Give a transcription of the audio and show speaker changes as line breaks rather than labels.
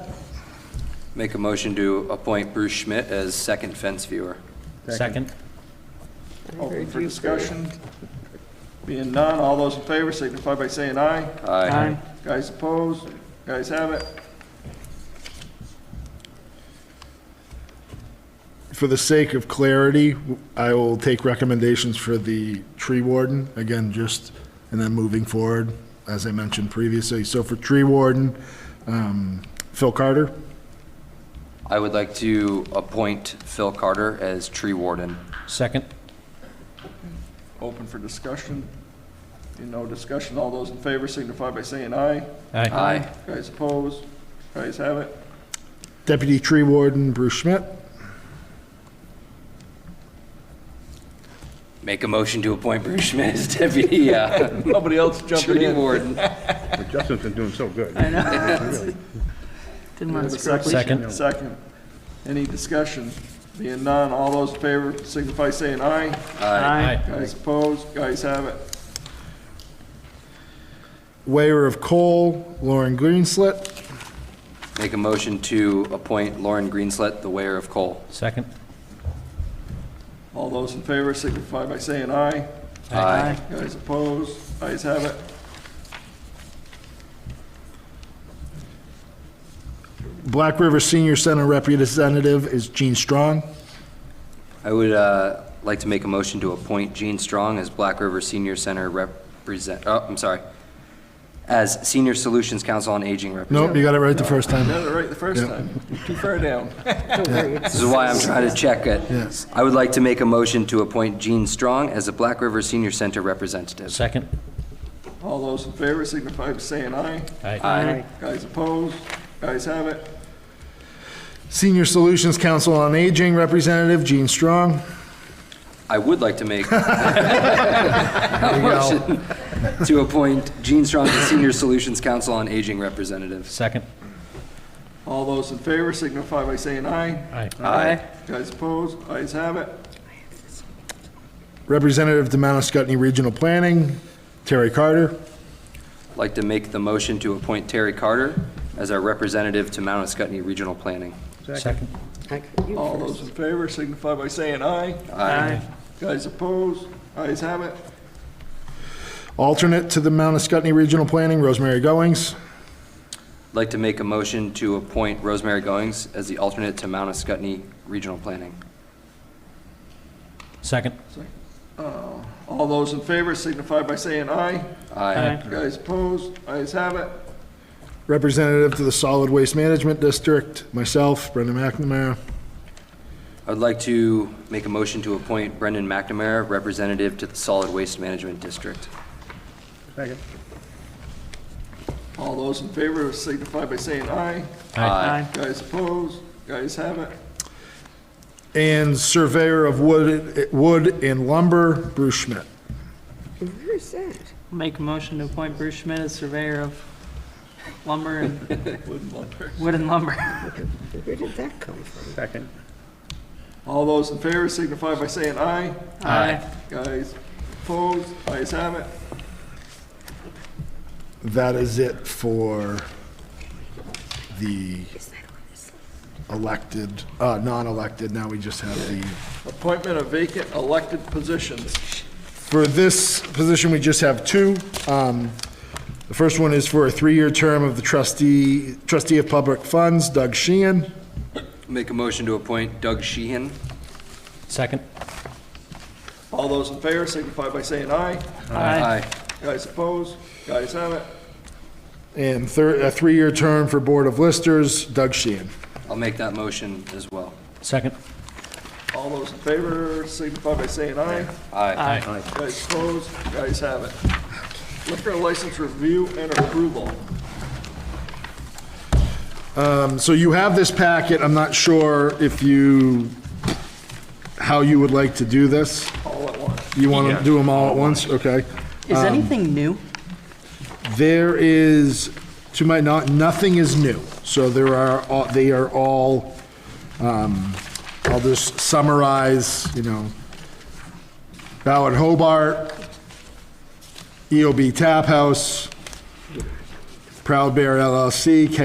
Make a motion to appoint Bruce Schmidt as second fence viewer.
Second?
Open for discussion. Being none, all those in favor signify by saying aye.
Aye.
Guys opposed? Guys have it?
For the sake of clarity, I will take recommendations for the tree warden, again, just, and then moving forward, as I mentioned previously. So for tree warden, um, Phil Carter,
I would like to appoint Phil Carter as tree warden.
Second?
Open for discussion. Being no discussion, all those in favor signify by saying aye.
Aye.
Aye.
Guys opposed? Guys have it?
deputy tree warden Bruce Schmidt,
Make a motion to appoint Bruce Schmidt as deputy, uh,
Nobody else jumping
tree
in.
warden.
But Justin's been doing so good.
I know. Didn't
Have
want
a
to
second?
Second.
Second. Any discussion? Being none, all those in favor signify by saying aye.
Aye.
Guys opposed? Guys have it?
waiver of coal Lauren Greenslit,
Make a motion to appoint Lauren Greenslet, the weigher of coal.
Second?
All those in favor signify by saying aye.
Aye.
Guys opposed? Guys have it?
Black River Senior Center representative is Gene Strong,
I would uh, like to make a motion to appoint Gene Strong as Black River Senior Center represent, oh, I'm sorry, as Senior Solutions Council on Aging representative.
nope, you got it right the first
Got
time,
it right the first
Yep.
time. Too far down.
This is why I'm trying to check it.
Yes.
I would like to make a motion to appoint Gene Strong as a Black River Senior Center representative.
Second?
All those in favor signify by saying aye.
Aye.
Aye.
Guys opposed? Guys have it?
Senior Solutions Council on Aging representative Gene Strong,
I would like to make a motion to appoint Gene Strong as Senior Solutions Council on Aging representative.
Second?
All those in favor signify by saying aye.
Aye.
Aye.
Guys opposed? Guys have it?
representative to Mount Scottney Regional Planning Terry Carter,
Like to make the motion to appoint Terry Carter as our representative to Mount Scottney Regional Planning.
Second?
All those in favor signify by saying aye.
Aye.
Guys opposed? Guys have it?
Alternate to the Mount Escutney Regional Planning, Rosemary Goings.
Like to make a motion to appoint Rosemary Goings as the alternate to Mount Scottney Regional Planning.
Second?
All those in favor signify by saying aye.
Aye.
Guys opposed? Guys have it?
Representative to the Solid Waste Management District, myself, Brendan McNamara.
I would like to make a motion to appoint Brendan McNamara, representative to the Solid Waste Management District.
Second.
All those in favor signify by saying aye.
Aye.
Guys opposed? Guys have it?
And Surveyor of Wood, Wood and Lumber, Bruce Schmidt.
Where is that? Make a motion to appoint Bruce Schmidt as surveyor of lumber and
Wouldn't wonder.
wood and lumber.
Where did that come from?
Second.
All those in favor signify by saying aye.
Aye.
Guys opposed? Guys have it?
That is it for the elected, uh, non-elected. Now we just have the,
Appointment of vacant elected positions.
for this position, we just have two. Um, The first one is for a three-year term of the trustee, trustee of public funds, Doug Sheehan.
Make a motion to appoint Doug Sheehan.
Second?
All those in favor signify by saying aye. Guys opposed? Guys have it?
And third, a three-year term for Board of Listers, Doug Sheehan.
I'll make that motion as well.
Second?
All those in favor signify by saying aye.
Aye.
Guys opposed? Guys have it? Liquor license review and approval.
Um, So you have this packet, I'm not sure if you, how you would like to do this.
All at once.
You want to do them all at once? Okay.
Is anything new?
There is, to my, not, nothing is new. So there are, all- they are all, um, I'll just summarize, you know, Ballard Hobart, E EOB Tap House, Proud Bear LLC,